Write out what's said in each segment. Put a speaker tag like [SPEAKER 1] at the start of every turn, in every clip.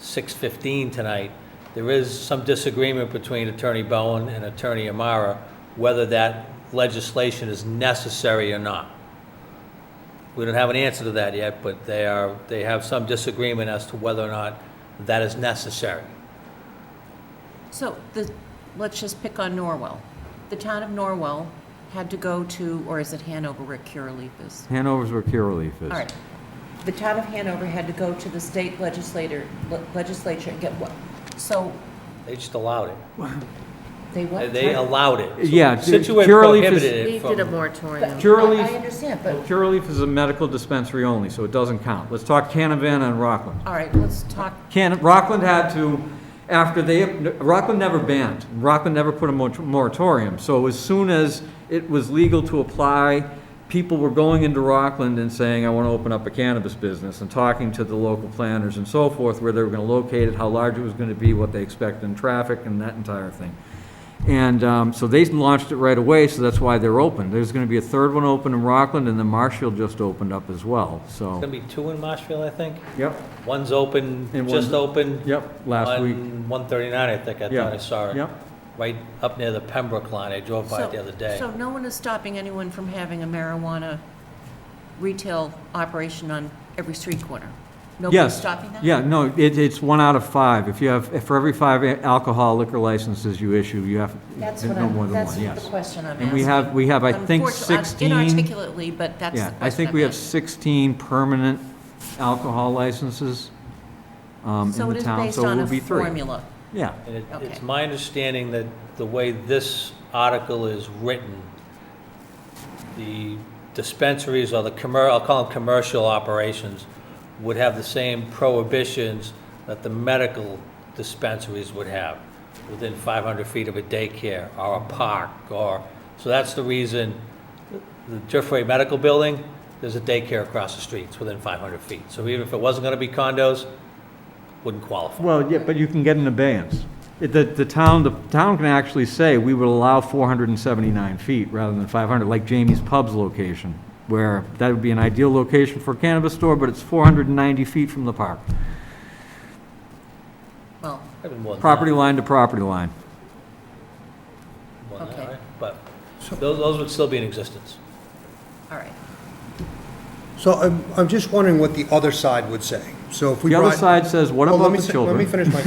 [SPEAKER 1] 6:15 tonight. There is some disagreement between Attorney Bowen and Attorney Amara whether that legislation is necessary or not. We don't have an answer to that yet, but they are, they have some disagreement as to whether or not that is necessary.
[SPEAKER 2] So the, let's just pick on Norwell. The town of Norwell had to go to, or is it Hanover where Curaleaf is?
[SPEAKER 3] Hanover's where Curaleaf is.
[SPEAKER 2] All right. The town of Hanover had to go to the state legislator, le- legislature and get what? So
[SPEAKER 1] They just allowed it.
[SPEAKER 2] they
[SPEAKER 1] They-
[SPEAKER 2] what?
[SPEAKER 1] They allowed it. So
[SPEAKER 3] Yeah,
[SPEAKER 1] Situate
[SPEAKER 3] Curaleaf is-
[SPEAKER 1] prohibited it
[SPEAKER 4] We did a
[SPEAKER 1] from-
[SPEAKER 4] moratorium.
[SPEAKER 3] Curaleaf-
[SPEAKER 2] I I understand, but,
[SPEAKER 3] Curaleaf is a medical dispensary only, so it doesn't count. Let's talk Canavan and Rockland.
[SPEAKER 2] all right, let's talk,
[SPEAKER 3] Can, Rockland had to, after they, Rockland never banned, Rockland never put a mor- moratorium. So as soon as it was legal to apply, people were going into Rockland and saying, I want to open up a cannabis business, and talking to the local planners and so forth, where they were going to locate it, how large it was going to be, what they expect in traffic, and that entire thing. And um, so they launched it right away, so that's why they're open. There's going to be a third one open in Rockland, and then Marshall just opened up as well,
[SPEAKER 1] It's
[SPEAKER 3] so.
[SPEAKER 1] gonna be two in Marshfield, I think.
[SPEAKER 3] Yep,
[SPEAKER 1] One's open,
[SPEAKER 3] And
[SPEAKER 1] just
[SPEAKER 3] one's-
[SPEAKER 1] open.
[SPEAKER 3] yep, last
[SPEAKER 1] on
[SPEAKER 3] week.
[SPEAKER 1] 139, I think, I
[SPEAKER 3] Yeah,
[SPEAKER 1] thought I saw it.
[SPEAKER 3] Yep.
[SPEAKER 1] Right up near the Pembroke line, I drove by it the
[SPEAKER 2] so,
[SPEAKER 1] other day.
[SPEAKER 2] so no one is stopping anyone from having a marijuana retail operation on every street corner? Nobody's
[SPEAKER 3] Yes.
[SPEAKER 2] stopping that?
[SPEAKER 3] Yeah, no, it, it's one out of five. If you have, if for every five alcohol liquor licenses you issue, you have
[SPEAKER 2] That's what
[SPEAKER 3] no more
[SPEAKER 2] I'm,
[SPEAKER 3] than
[SPEAKER 2] that's
[SPEAKER 3] one,
[SPEAKER 2] the
[SPEAKER 3] yes.
[SPEAKER 2] question I'm asking.
[SPEAKER 3] And we have, we have, I think,
[SPEAKER 2] Unfortunately,
[SPEAKER 3] sixteen,
[SPEAKER 2] Inarticulately, but that's the
[SPEAKER 3] yeah,
[SPEAKER 2] question.
[SPEAKER 3] I think
[SPEAKER 2] I'm
[SPEAKER 3] we have
[SPEAKER 2] asking.
[SPEAKER 3] sixteen permanent alcohol licenses, um, in the town, so it will
[SPEAKER 2] So it
[SPEAKER 3] be
[SPEAKER 2] is based on a
[SPEAKER 3] three.
[SPEAKER 2] formula.
[SPEAKER 3] Yeah,
[SPEAKER 1] And it- it's
[SPEAKER 2] Okay.
[SPEAKER 1] my understanding that the way this article is written, the dispensaries or the commer, I'll call them commercial operations, would have the same prohibitions that the medical dispensaries would have within 500 feet of a daycare or a park or, so that's the reason the Jeffrey Medical Building, there's a daycare across the street, it's within 500 feet. So even if it wasn't going to be condos, wouldn't qualify.
[SPEAKER 3] well, yeah, but you can get an abeyance. It- The, the town, the town can actually say, we will allow four hundred and seventy-nine feet rather than five hundred, like Jamie's Pub's location, where that would be an ideal location for a cannabis store, but it's four hundred and ninety feet from the park.
[SPEAKER 2] Well,
[SPEAKER 1] Might be more than that.
[SPEAKER 3] Property line to property line.
[SPEAKER 1] Well,
[SPEAKER 2] Okay.
[SPEAKER 1] all right, But those, those would still be in existence.
[SPEAKER 2] all right.
[SPEAKER 5] So I'm, I'm just wondering what the other side would say. So if we
[SPEAKER 3] The
[SPEAKER 5] brought...
[SPEAKER 3] other side says, what
[SPEAKER 5] Well, let
[SPEAKER 3] about
[SPEAKER 5] me
[SPEAKER 3] the
[SPEAKER 5] fi-
[SPEAKER 3] children?
[SPEAKER 5] Let me finish my,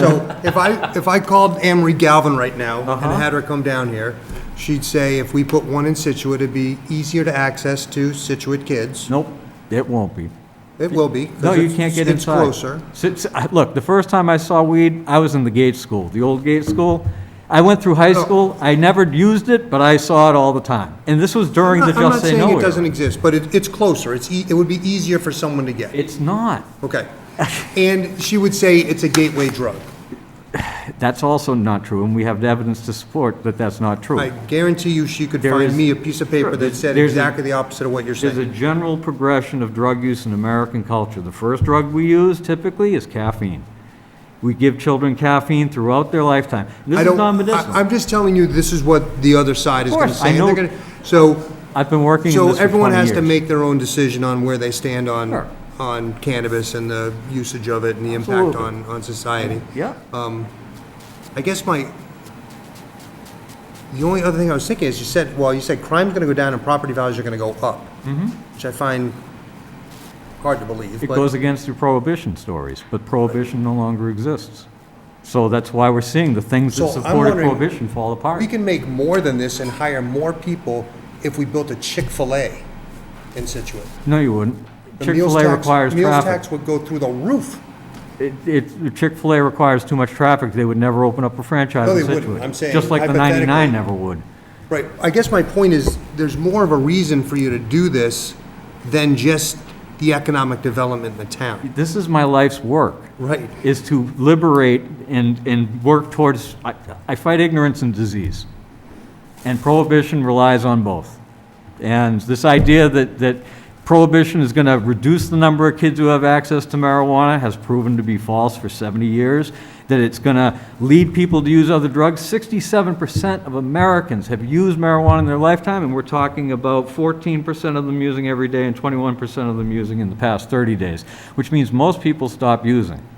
[SPEAKER 5] so if I, if I called Anne Marie Galvin right now and
[SPEAKER 3] Uh-huh.
[SPEAKER 5] had her come down here, she'd say if we put one in Situate, it'd be easier to access to Situate kids.
[SPEAKER 3] Nope, it won't be.
[SPEAKER 5] It will be. 'cause
[SPEAKER 3] No, you
[SPEAKER 5] it's-
[SPEAKER 3] can't get
[SPEAKER 5] It's
[SPEAKER 3] inside.
[SPEAKER 5] closer.
[SPEAKER 3] Since- I- Look, the first time I saw weed, I was in the Gates School, the old Gates School. I went through high
[SPEAKER 5] No.
[SPEAKER 3] school, I never used it, but I saw it all the time. And this was during the
[SPEAKER 5] I'm not
[SPEAKER 3] Just Say No
[SPEAKER 5] saying it doesn't
[SPEAKER 3] era.
[SPEAKER 5] exist, but it, it's closer. It's, e- it would be easier for someone to get.
[SPEAKER 3] It's not.
[SPEAKER 5] Okay. And she would say it's a gateway drug.
[SPEAKER 3] That's also not true, and we have evidence to support that that's not true.
[SPEAKER 5] I guarantee you she could
[SPEAKER 3] There is-
[SPEAKER 5] find me a piece of
[SPEAKER 3] Sure,
[SPEAKER 5] paper that said
[SPEAKER 3] there's a-
[SPEAKER 5] exactly the opposite of what you're
[SPEAKER 3] There's a
[SPEAKER 5] saying.
[SPEAKER 3] general progression of drug use in American culture. The first drug we use typically is caffeine. We give children caffeine throughout their lifetime. This
[SPEAKER 5] I
[SPEAKER 3] is
[SPEAKER 5] don't,
[SPEAKER 3] non-medicinal.
[SPEAKER 5] I- I'm just telling you, this is what the other side is
[SPEAKER 3] Of
[SPEAKER 5] going to
[SPEAKER 3] course, I
[SPEAKER 5] say. and they're
[SPEAKER 3] know-
[SPEAKER 5] gonna- So,
[SPEAKER 3] I've been working in
[SPEAKER 5] so
[SPEAKER 3] this for
[SPEAKER 5] everyone
[SPEAKER 3] 20
[SPEAKER 5] has to
[SPEAKER 3] years.
[SPEAKER 5] make their own decision on where they stand
[SPEAKER 3] Sure.
[SPEAKER 5] on, on cannabis and the usage of it and the impact
[SPEAKER 3] Absolutely.
[SPEAKER 5] on, on society.
[SPEAKER 3] Yeah.
[SPEAKER 5] I guess my, the only other thing I was thinking is you said, well, you said crime's going to go down and property values are going to go up, which I find hard to believe.
[SPEAKER 3] Mm-hmm. It
[SPEAKER 5] but-
[SPEAKER 3] goes against your prohibition stories, but prohibition no longer exists. So that's why we're seeing the things that
[SPEAKER 5] So I'm
[SPEAKER 3] supported
[SPEAKER 5] wondering-
[SPEAKER 3] prohibition fall apart.
[SPEAKER 5] We can make more than this and hire more people if we built a Chick-fil-A in Situate.
[SPEAKER 3] No, you wouldn't.
[SPEAKER 5] The meals
[SPEAKER 3] Chick-fil-A
[SPEAKER 5] tax-
[SPEAKER 3] requires
[SPEAKER 5] Meals
[SPEAKER 3] traffic.
[SPEAKER 5] tax would go through the roof.
[SPEAKER 3] It- It, Chick-fil-A requires too much traffic, they would never open up a franchise
[SPEAKER 5] No,
[SPEAKER 3] in
[SPEAKER 5] they wouldn't.
[SPEAKER 3] Situate.
[SPEAKER 5] I'm saying
[SPEAKER 3] Just like the 99
[SPEAKER 5] hypothetically.
[SPEAKER 3] never would.
[SPEAKER 5] Right, I guess my point is, there's more of a reason for you to do this than just the economic development in the town.
[SPEAKER 3] This is my life's work.
[SPEAKER 5] Right,
[SPEAKER 3] is to liberate and, and work towards, I, I fight ignorance and disease. And prohibition relies on both. And this idea that, that prohibition is going to reduce the number of kids who have access to marijuana has proven to be false for 70 years, that it's going to lead people to use other drugs. 67% of Americans have used marijuana in their lifetime, and we're talking about 14% of them using every day and 21% of them using in the past 30 days, which means most people stop using.